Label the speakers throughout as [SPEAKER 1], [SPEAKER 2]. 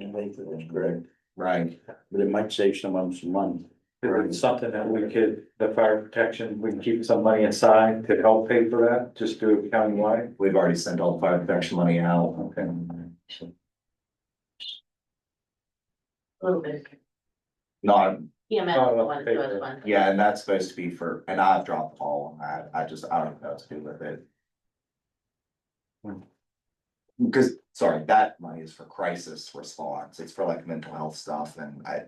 [SPEAKER 1] to pay for this, correct?
[SPEAKER 2] Right.
[SPEAKER 1] But it might save some of them some money.
[SPEAKER 3] If it's something that we could, the fire protection, we can keep some money aside to help pay for that, just do it countywide.
[SPEAKER 2] We've already sent all the fire protection money out.
[SPEAKER 3] Okay.
[SPEAKER 4] A little bit.
[SPEAKER 2] Not,
[SPEAKER 4] EMS
[SPEAKER 3] Oh,
[SPEAKER 4] one,
[SPEAKER 3] okay,
[SPEAKER 4] those
[SPEAKER 3] good.
[SPEAKER 4] ones.
[SPEAKER 2] yeah, and that's supposed to be for, and I've dropped the ball on that. I just, I don't know what to do with it. Because, sorry, that money is for crisis response. It's for like mental health stuff and I.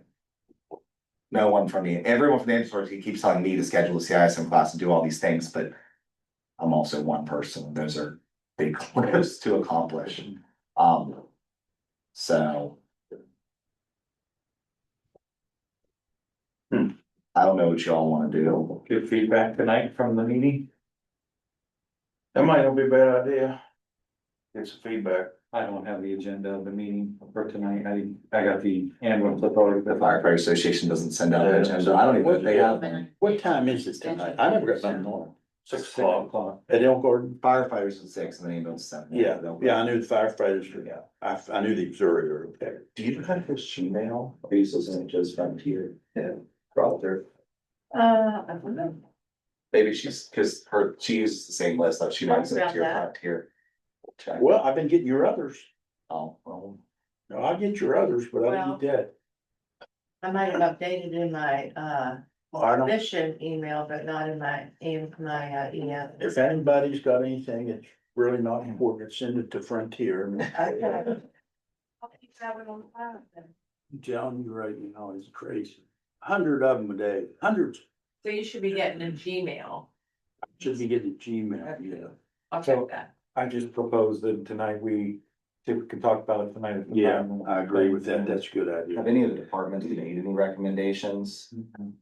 [SPEAKER 2] No one from the, everyone from the industry keeps telling me to schedule a CISM class and do all these things, but. I'm also one person. Those are big goals to accomplish. Um. So.
[SPEAKER 3] Hmm.
[SPEAKER 2] I don't know what y'all wanna do.
[SPEAKER 3] Good feedback tonight from the meeting.
[SPEAKER 1] That might not be a bad idea. Get some feedback.
[SPEAKER 3] I don't have the agenda of the meeting for tonight. I, I got the annual flip over to
[SPEAKER 2] The
[SPEAKER 3] the fire.
[SPEAKER 2] firefighter association doesn't send out an agenda. I don't even know if they have one.
[SPEAKER 1] What time is it tonight? I never got nothing on.
[SPEAKER 3] Six o'clock.
[SPEAKER 1] At Elk Garden?
[SPEAKER 2] Firefighters at six and then ambulance at seven.
[SPEAKER 1] Yeah,
[SPEAKER 2] They'll-
[SPEAKER 1] yeah, I knew the firefighters, were-
[SPEAKER 2] Yeah.
[SPEAKER 1] I, I knew the observer were there.
[SPEAKER 2] Do you have his Gmail? Or you still send it just from here? Yeah. Probably.
[SPEAKER 4] Uh, I don't know.
[SPEAKER 2] Maybe she's, cause her, she uses the same list that she
[SPEAKER 4] Talked
[SPEAKER 2] might send it
[SPEAKER 4] about
[SPEAKER 2] to your
[SPEAKER 4] that.
[SPEAKER 2] frontier. Check.
[SPEAKER 1] Well, I've been getting your others.
[SPEAKER 2] Oh, well,
[SPEAKER 1] No, I get your others, but I
[SPEAKER 4] Well-
[SPEAKER 1] don't get that.
[SPEAKER 4] I might have updated in my, uh,
[SPEAKER 1] Oh, I don't,
[SPEAKER 4] mission email, but not in my, in my, uh, email.
[SPEAKER 1] if anybody's got anything that's really not important, send it to Frontier.
[SPEAKER 4] Okay.
[SPEAKER 1] I'm telling you right now, it's crazy. Hundred of them a day, hundreds
[SPEAKER 4] So you should be getting a Gmail.
[SPEAKER 1] should be getting Gmail, yeah.
[SPEAKER 4] I'll
[SPEAKER 3] So-
[SPEAKER 4] check that.
[SPEAKER 3] I just proposed that tonight we, if we can talk about it tonight.
[SPEAKER 1] I agree with that. That's a good
[SPEAKER 2] have
[SPEAKER 1] idea.
[SPEAKER 2] any of the departments made any recommendations?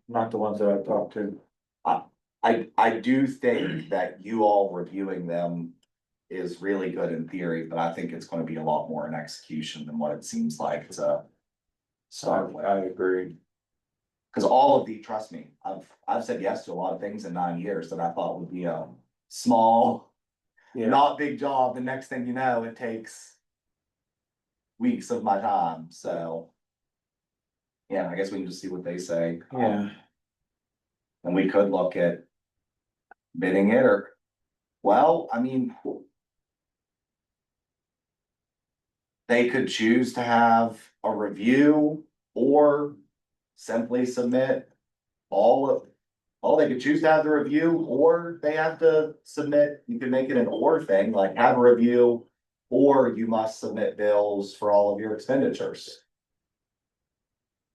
[SPEAKER 3] Not the ones that I talked to.
[SPEAKER 2] I, I do think that you all reviewing them is really good in theory, but I think it's gonna be a lot more in execution than what it seems like to start with.
[SPEAKER 3] agree.
[SPEAKER 2] Cause all of the, trust me, I've, I've said yes to a lot of things in nine years that I thought would be a small,
[SPEAKER 3] Yeah.
[SPEAKER 2] not big job. The next thing you know, it takes weeks of my time, so. Yeah, I guess we can just see what they say.
[SPEAKER 3] Yeah.
[SPEAKER 2] And we could look at bidding it or, well, I mean. They could choose to have a review or simply submit all of. Well, they could choose to have the review or they have to submit, you can make it an or thing, like have a review. Or you must submit bills for all of your expenditures.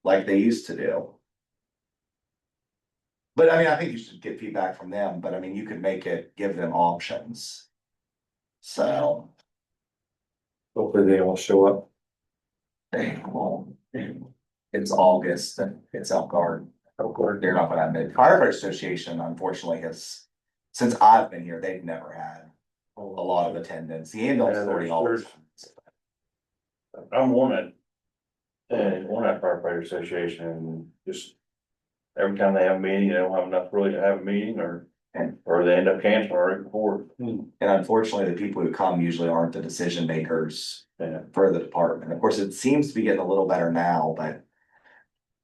[SPEAKER 2] Like they used to do. But I mean, I think you should get feedback from them, but I mean, you could make it, give them options. So.
[SPEAKER 3] Hopefully they all show up.
[SPEAKER 2] well, It's August and it's Elkhart.
[SPEAKER 3] Of course.
[SPEAKER 2] They're not gonna have mid. Firefighter Association unfortunately has, since I've been here, they've never had a lot of attendance. The ambulance
[SPEAKER 1] Yeah,
[SPEAKER 2] authority
[SPEAKER 1] there's-
[SPEAKER 2] always.
[SPEAKER 5] I'm on it. And on that firefighter association, and just. Every time they have a meeting, they don't have enough really to have a meeting or, or they end up canceling right before.
[SPEAKER 3] Hmm.
[SPEAKER 2] And unfortunately, the people who come usually aren't the decision makers
[SPEAKER 5] Yeah.
[SPEAKER 2] for the department. Of course, it seems to be getting a little better now, but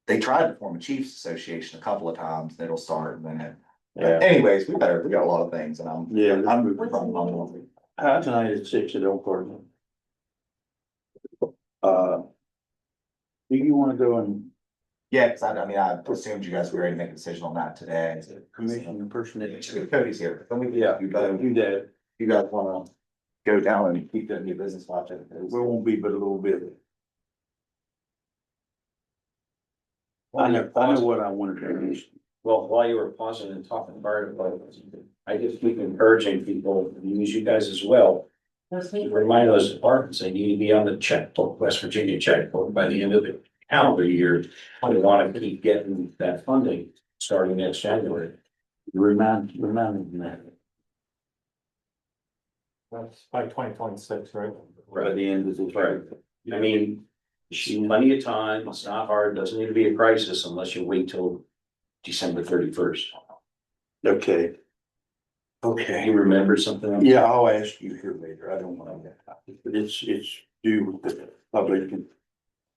[SPEAKER 2] they tried to form a chiefs association a couple of times, and it'll start and then it
[SPEAKER 5] Yeah,
[SPEAKER 2] Anyways, we better, we got a lot of things and I'm,
[SPEAKER 1] Yeah, let's
[SPEAKER 2] I'm
[SPEAKER 1] move
[SPEAKER 2] moving from one to another.
[SPEAKER 1] Uh, tonight at six at Oak Garden. Uh. Do you wanna go and
[SPEAKER 2] Yeah, cause I, I mean, I assumed you guys were ready to make a decision on that today.
[SPEAKER 1] commission the person that?
[SPEAKER 2] Cody's here. Then we-
[SPEAKER 1] Yeah,
[SPEAKER 2] You
[SPEAKER 1] you
[SPEAKER 2] guys,
[SPEAKER 1] that.
[SPEAKER 2] you guys wanna go down and keep that new business watching?
[SPEAKER 1] We won't be but a little bit. I know, I know what I wanted to do.
[SPEAKER 6] Well, while you were pausing and talking about it, like, I just keep encouraging people, and use you guys as well. to Remind those departments, they need to be on the checkbook, West Virginia checkbook by the end of the calendar year. They want to keep getting that funding starting next January.
[SPEAKER 1] Remind, remind me that.
[SPEAKER 3] That's by twenty twenty-six, right?
[SPEAKER 1] By the end of the.
[SPEAKER 6] Right. I mean, she plenty of time, it's not hard, doesn't need to be a crisis unless you wait till December thirty first.
[SPEAKER 1] Okay. Okay.
[SPEAKER 6] You remember something?
[SPEAKER 1] Yeah, I'll ask you here later. I don't want to. But it's, it's due with the public and